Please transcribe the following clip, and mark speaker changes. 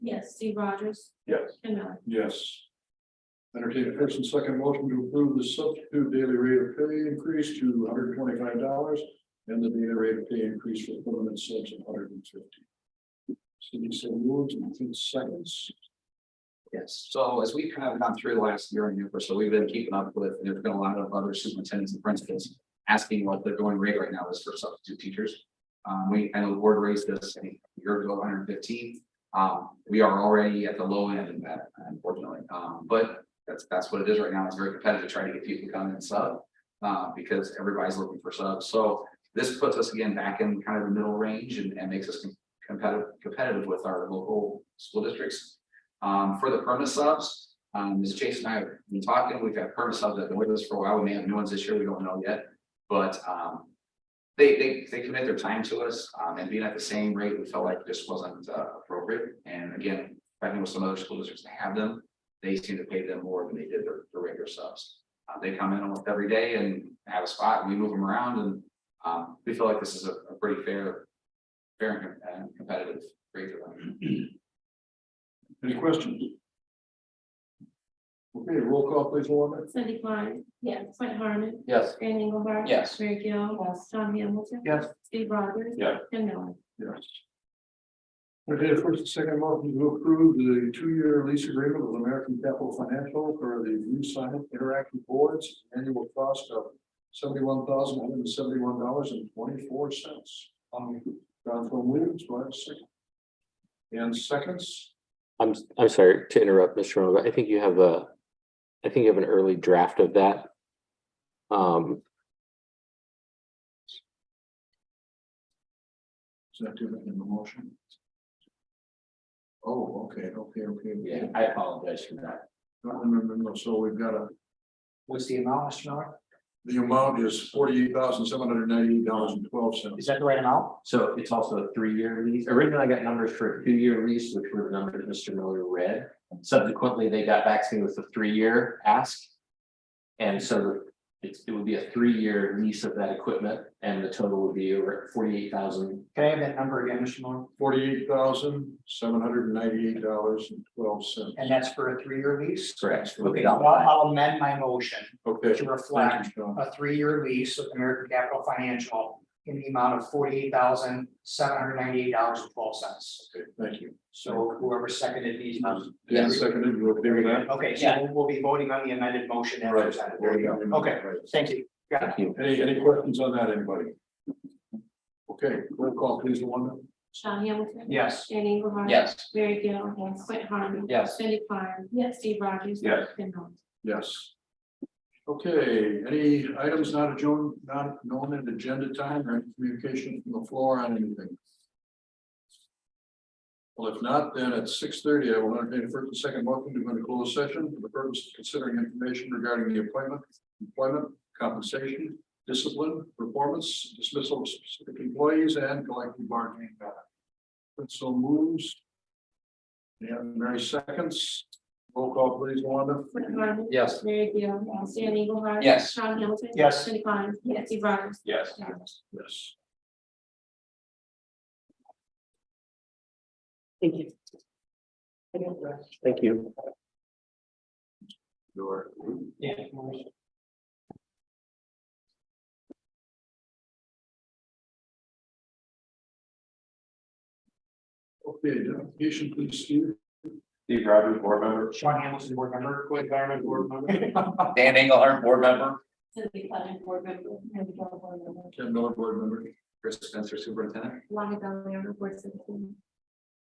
Speaker 1: Yes. Steve Rogers.
Speaker 2: Yes.
Speaker 1: Ken Miller.
Speaker 2: Yes. Entertain a first and second motion to approve the substitute daily rate of pay increase to hundred twenty-five dollars and the daily rate of pay increase for permanent subs of hundred and fifty. Cindy so moved in ten seconds.
Speaker 3: Yes, so as we've kind of gone through the last year and a half or so, we've been keeping up with, and there's been a lot of other superintendents and principals asking what they're going rate right now is for substitute teachers. Um, we, I know the board raised this I think, a year ago, hundred and fifteen. Um, we are already at the low end of that, unfortunately, um, but that's, that's what it is right now. It's very competitive trying to get people to come in and sub. Uh, because everybody's looking for subs, so this puts us again back in kind of the middle range and, and makes us competitive, competitive with our local school districts. Um, for the perma subs, um, Ms. Chase and I have been talking, we've had perma subs that have been with us for a while, we may have new ones this year, we don't know yet. But, um, they, they, they commit their time to us, um, and being at the same rate, we felt like this wasn't, uh, appropriate. And again, I know some other school districts that have them, they seem to pay them more than they did their, their regular subs. Uh, they come in almost every day and have a spot, and we move them around, and, um, we feel like this is a, a pretty fair, fair and com- and competitive rate for them.
Speaker 2: Any questions? Okay, roll call please, Luana.
Speaker 1: Cindy Klein. Yes. Mike Harmon.
Speaker 3: Yes.
Speaker 1: Fran Engelhardt.
Speaker 3: Yes.
Speaker 1: Mary Gill. Yes. John Hamilton.
Speaker 3: Yes.
Speaker 1: Steve Rogers.
Speaker 2: Yeah.
Speaker 1: Ken Miller.
Speaker 2: Yes. Okay, first and second motion to approve the two-year lease agreement with American Capital Financial for the new sign interactive boards, annual cost of seventy-one thousand one hundred and seventy-one dollars and twenty-four cents. Um, John from Williams, do I have a second? And seconds,
Speaker 4: I'm, I'm sorry to interrupt, Mr. Romo, but I think you have a, I think you have an early draft of that. Um,
Speaker 2: is that different in the motion? Oh, okay, okay, okay.
Speaker 5: Yeah, I apologize for that.
Speaker 2: No, no, no, no, so we've got a,
Speaker 3: What's the amount, Mr. Miller?
Speaker 2: the amount is forty-eight thousand seven hundred and ninety-eight dollars and twelve cents.
Speaker 5: Is that the right amount? So it's also a three-year lease. Originally, I got numbers for a two-year lease, which were the numbers Mr. Miller read. Subsequently, they got back to me with a three-year ask. And so it's, it would be a three-year lease of that equipment and the total would be over forty-eight thousand.
Speaker 3: Can I have that number again, Mr. Miller?
Speaker 2: forty-eight thousand, seven hundred and ninety-eight dollars and twelve cents.
Speaker 6: And that's for a three-year lease?
Speaker 5: Correct.
Speaker 6: Okay, well, I'll amend my motion
Speaker 2: Okay.
Speaker 6: to
Speaker 2: Thank
Speaker 6: reflect
Speaker 2: you, John.
Speaker 6: a three-year lease with American Capital Financial in the amount of forty-eight thousand, seven hundred ninety-eight dollars and twelve cents.
Speaker 2: Okay, Thank you.
Speaker 6: So whoever seconded these. motions-
Speaker 2: Dan seconded, you okay with that?
Speaker 6: Okay, so we'll- we'll be voting on the amended motion as presented. There you go. Okay, thank you.
Speaker 5: Thank you.
Speaker 2: Any, any questions on that, anybody? Okay, roll call please, Luana.
Speaker 1: John Hamilton.
Speaker 6: Yes.
Speaker 1: Fran Engelhardt.
Speaker 5: Yes.
Speaker 1: Mary Gill. Yes. Mike Harmon.
Speaker 5: Yes.
Speaker 1: Cindy Klein. Yes. Steve Rogers.
Speaker 2: Yes.
Speaker 1: Ken Miller.
Speaker 2: Yes. Okay, any items not adjourned, not known in agenda time or any communication from the floor on anything? Well, if not, then at six thirty, I will entertain a first and second motion to go into closed session for the purpose of considering information regarding the appointment, employment, compensation, discipline, performance, dismissal of specific employees and collective bargaining. matter. And so moves. And Mary seconds. Roll call please, Wanda.
Speaker 1: Mike Harmon.
Speaker 5: Yes.
Speaker 1: Mary Gill. Yes. Fran Engelhardt.
Speaker 5: Yes.
Speaker 1: John Hamilton.
Speaker 6: Yes.
Speaker 1: Cindy Klein. Yes. Steve Rogers.
Speaker 5: Yes.
Speaker 1: Ken Miller.
Speaker 2: Yes.
Speaker 4: thank you. Thank you.
Speaker 2: Your.
Speaker 6: Yeah.
Speaker 2: Okay, identification, please, Steve.
Speaker 7: Steve Rogers, board member.
Speaker 6: Sean Hamilton, board member, Quinn Garman, board member.
Speaker 3: Dan Engelhardt, board member.
Speaker 1: Cindy Klein, board member. Mary Gill, board member.
Speaker 2: Ken Miller, board member.
Speaker 3: Chris Spencer, superintendent.
Speaker 1: Lonnie Bell, board member.